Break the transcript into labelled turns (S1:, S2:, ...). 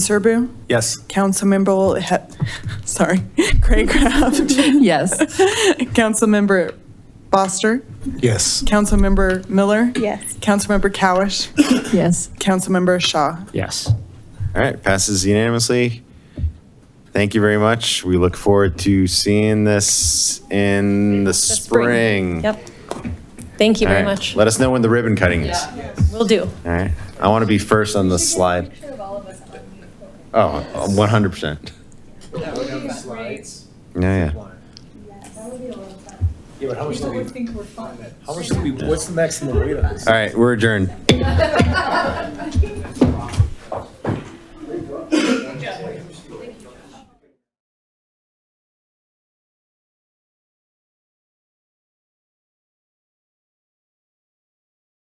S1: Serbu,
S2: Yes.
S1: Councilmember, he- sorry, Craig Craft,
S3: Yes.
S1: Councilmember Foster,
S2: Yes.
S1: Councilmember Miller,
S4: Yes.
S1: Councilmember Cowish,
S3: Yes.
S1: Councilmember Shaw.
S5: Yes.
S6: All right, passes unanimously. Thank you very much. We look forward to seeing this in the spring.
S4: Yep. Thank you
S6: All
S4: very
S6: right,
S4: much.
S6: Let us know when the ribbon cutting is.
S4: Will do.
S6: All right, I want to be first on the slide. Oh, 100%. Yeah, yeah.
S2: Yeah, but how much do we? How much do we, what's the maximum weight on this?
S6: All right, we're adjourned.